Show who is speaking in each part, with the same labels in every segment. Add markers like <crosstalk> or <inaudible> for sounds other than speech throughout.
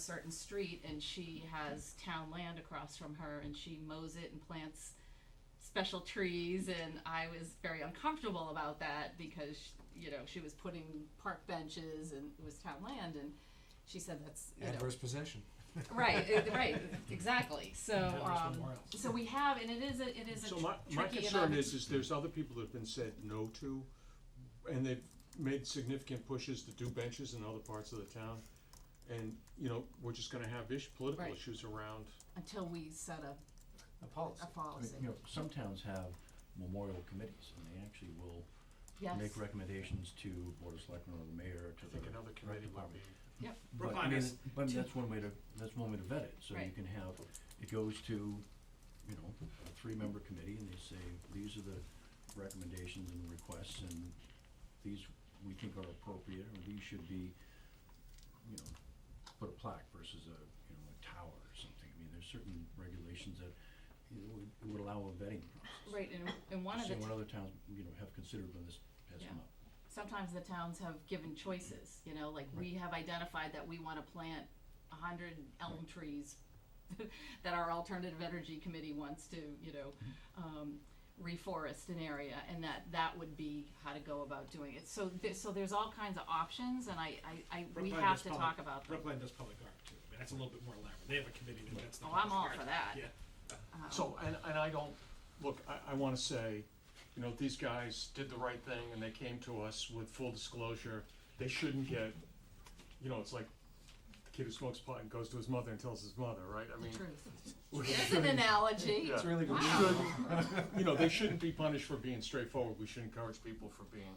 Speaker 1: certain street and she has town land across from her and she mows it and plants special trees and I was very uncomfortable about that because you know she was putting park benches and it was town land and she said that's you know
Speaker 2: Adverse possession.
Speaker 1: right uh, right
Speaker 2: <laughs>
Speaker 1: exactly so
Speaker 2: Adverse
Speaker 1: um
Speaker 2: memorials.
Speaker 1: so we have and it is a it is a
Speaker 3: So
Speaker 1: tr-
Speaker 3: my, my
Speaker 1: tricky
Speaker 3: concern
Speaker 1: enough-
Speaker 3: is, is there's other people that have been said no to, and they've made significant pushes to do benches in other parts of the town. And, you know, we're just gonna have ish, political
Speaker 1: Right.
Speaker 3: issues around,
Speaker 1: until we set a,
Speaker 2: A policy.
Speaker 1: a
Speaker 4: I mean,
Speaker 1: policy
Speaker 4: you know, some towns have memorial committees, and they actually will
Speaker 1: yes
Speaker 4: make recommendations to board of selectmen or the mayor or
Speaker 3: I
Speaker 4: to the.
Speaker 3: think another committee would be.
Speaker 4: But I mean, but that's one way to, that's one way to vet it, so you
Speaker 1: Right.
Speaker 4: can have, it goes to, you know, a three-member committee, and they say, these are the recommendations and requests, and these we think are appropriate, or these should be, you know, put a plaque versus a, you know, a tower or something, I mean, there's certain regulations that, you know, would, would allow a vetting process.
Speaker 1: right and, and one of the
Speaker 4: Seeing what other towns, you know, have considered when this has
Speaker 1: Yeah.
Speaker 4: come up.
Speaker 1: sometimes the towns have given choices, you know, like we have identified that we wanna plant a hundred elm trees <laughs> that our alternative energy committee wants to, you know, um, reforest an area and that, that would be how to go about doing it. So there, so there's all kinds of options and I, I, I, we
Speaker 5: Brookline
Speaker 1: have
Speaker 5: does
Speaker 1: to
Speaker 5: public-
Speaker 1: talk about them.
Speaker 5: Brookline does public art too. I mean, that's a little bit more elaborate. They have a committee that that's the.
Speaker 1: Oh, I'm
Speaker 5: public
Speaker 1: all
Speaker 5: art.
Speaker 1: for that.
Speaker 5: Yeah.
Speaker 1: Um,
Speaker 3: So, and, and I don't, look, I, I wanna say, you know, these guys did the right thing and they came to us with full disclosure. They shouldn't get, you know, it's like the kid who smokes pot and goes to his mother and tells his mother, right? I
Speaker 1: The
Speaker 3: mean,
Speaker 1: truth.
Speaker 3: we
Speaker 1: There's an analogy.
Speaker 3: Yeah.
Speaker 2: It's really good.
Speaker 3: We
Speaker 1: Wow.
Speaker 3: shouldn't, you know, they shouldn't be punished for being straightforward, we should encourage people for being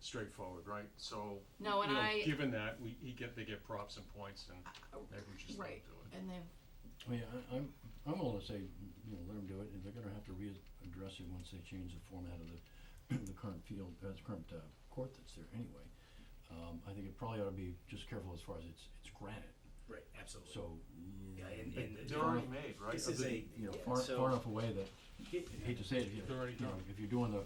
Speaker 3: straightforward, right? So, you
Speaker 1: No, and
Speaker 3: know,
Speaker 1: I- Uh,
Speaker 3: given that, we, he get, they get props and points and maybe we just don't do
Speaker 1: Right,
Speaker 3: it.
Speaker 1: and they've
Speaker 4: I mean, I, I'm, I'm willing to say, you know, let them do it, and they're gonna have to readdress it once they change the format of the, <clears throat> the current field, uh, the current, uh, court that's there anyway. Um, I think it probably ought to be just careful as far as it's, it's granite,
Speaker 6: Right, absolutely.
Speaker 4: so, mm,
Speaker 6: Yeah, and,
Speaker 3: They-
Speaker 6: and the-
Speaker 3: They're already made, right?
Speaker 6: This
Speaker 3: Are
Speaker 6: is
Speaker 3: they-
Speaker 6: a,
Speaker 4: you know,
Speaker 6: yeah,
Speaker 4: far,
Speaker 6: so-
Speaker 4: far enough away that,
Speaker 6: It-
Speaker 4: I hate to say it, if you,
Speaker 3: They're already
Speaker 4: you know,
Speaker 3: done.
Speaker 4: if you're doing the,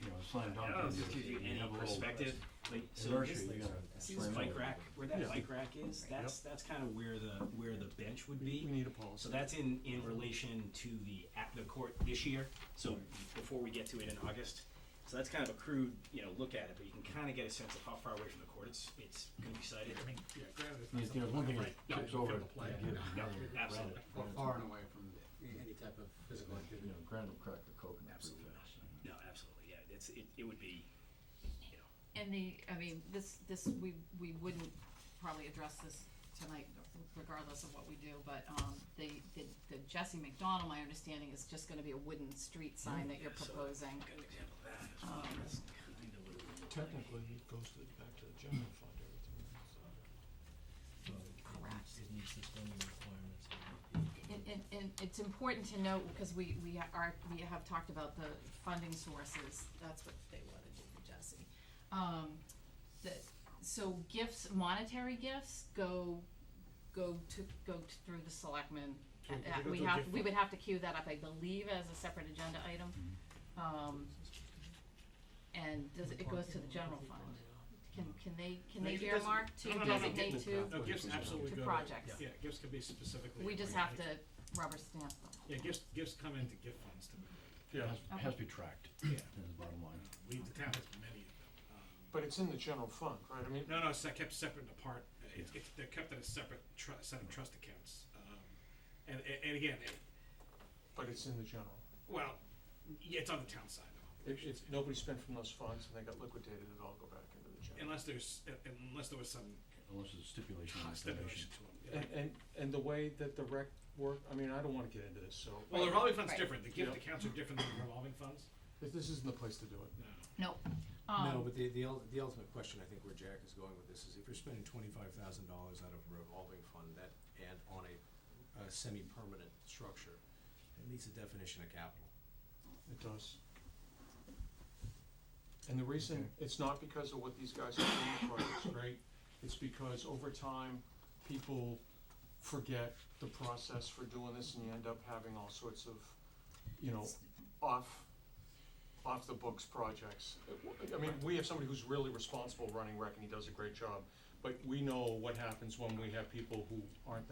Speaker 4: you know, slam dunk.
Speaker 6: I don't know,
Speaker 4: and
Speaker 6: if this gives you
Speaker 4: you
Speaker 6: any
Speaker 4: have a little
Speaker 6: perspective, like, so
Speaker 4: Inertia,
Speaker 6: this,
Speaker 4: you gotta.
Speaker 6: see this
Speaker 4: slam
Speaker 6: bike
Speaker 4: over.
Speaker 6: rack, where that
Speaker 3: Yeah.
Speaker 6: bike rack is, that's, that's kind of where the, where the bench would
Speaker 3: We
Speaker 6: be.
Speaker 3: need a policy.
Speaker 6: So that's in, in relation to the, at the court this year, so before we get to it in August. So that's kind of a crude, you know, look at it, but you can kind of get a sense of how far away from the court it's, it's gonna be sighted.
Speaker 5: I mean, yeah, granted, it's
Speaker 4: I mean,
Speaker 5: not
Speaker 4: there's
Speaker 5: something
Speaker 4: one
Speaker 5: like
Speaker 4: thing
Speaker 5: right
Speaker 4: that
Speaker 5: now
Speaker 4: tips
Speaker 5: you
Speaker 4: over,
Speaker 5: can
Speaker 4: to
Speaker 5: apply it.
Speaker 4: give
Speaker 5: No,
Speaker 4: another granite,
Speaker 6: absolutely.
Speaker 7: Or
Speaker 4: granite,
Speaker 7: far and away from any type of physical
Speaker 4: You
Speaker 7: activity.
Speaker 4: know, granite will crack the coconut pretty
Speaker 6: Absolutely.
Speaker 4: fast.
Speaker 6: No, absolutely, yeah, it's, it, it would be, you know,
Speaker 1: And the, I mean, this, this, we, we wouldn't probably address this tonight regardless of what we do, but, um, the, the, the Jesse McDonald, my understanding, is just gonna be a wooden street sign that you're
Speaker 6: Yeah, so-
Speaker 1: proposing.
Speaker 6: good example of that.
Speaker 1: Um,
Speaker 6: That's kind of what we're-
Speaker 5: Technically, it goes to, the- back to the general fund, everything. so.
Speaker 1: Correct.
Speaker 8: It meets the spending requirements.
Speaker 1: And, and, and it's important to note, because we, we are, we have talked about the funding sources, that's what they wanna do for Jesse. Um, the, so gifts, monetary gifts go, go to, go t- through the selectmen.
Speaker 5: So
Speaker 1: Uh,
Speaker 5: they go
Speaker 1: we
Speaker 5: to a
Speaker 1: have,
Speaker 5: gift
Speaker 1: we
Speaker 5: fund.
Speaker 1: would have to queue that up, I believe, as a separate agenda item. Um, and does, it it goes to the general fund. Can, can they, can
Speaker 5: No,
Speaker 1: they
Speaker 5: it doesn't-
Speaker 1: earmark
Speaker 5: no,
Speaker 1: to
Speaker 5: no, no, no,
Speaker 1: designate
Speaker 5: gifts-
Speaker 1: to,
Speaker 5: No, gifts absolutely
Speaker 1: To
Speaker 5: go
Speaker 1: projects.
Speaker 5: Yeah, gifts can be specifically.
Speaker 1: we just have to rubber stamp them.
Speaker 5: Yeah, gifts, gifts come into gift funds to,
Speaker 3: Yeah,
Speaker 4: Has, has to be tracked,
Speaker 5: yeah, Uh,
Speaker 4: is the bottom line.
Speaker 5: we, the town has many of them. Um,
Speaker 3: but it's in the general fund, right? I mean,
Speaker 5: No, no, it's uh, kept separate and apart. Uh, It's, it's, they're kept in a separate tru- set of trust accounts. Um, and, and- and again, it,
Speaker 3: but it's in the general.
Speaker 5: well, yeah, it's on the town side though.
Speaker 3: If, if nobody spent from those funds and they got liquidated, it'd all go back into the general.
Speaker 5: Unless there's, uh, unless there was some
Speaker 4: Unless it's <laughs> stipulation on
Speaker 5: stipulation
Speaker 4: stipulation.
Speaker 5: to them.
Speaker 3: And, and, and the way that the rec work, I mean, I don't wanna get into this, so.
Speaker 5: Well, the revolving fund's
Speaker 1: Right.
Speaker 5: different. The gift
Speaker 3: Yeah.
Speaker 5: accounts are different than the revolving funds.
Speaker 3: This, this isn't the place to do it.
Speaker 5: No.
Speaker 1: Nope.
Speaker 7: No,
Speaker 1: Um,
Speaker 7: but the, the ul- the ultimate question, I think where Jack is going with this is if you're spending twenty-five thousand dollars out of a revolving fund that, and on a, a semi-permanent structure, it meets the definition of capital.
Speaker 3: It does. And the reason, it's not because of what these guys are doing, the project's great, it's because over time, people forget the process for doing this and you end up having all sorts of, you know, off, off the books projects. It w- I mean, we have somebody who's really responsible running rec and he does a great job, but we know what happens when we have people who aren't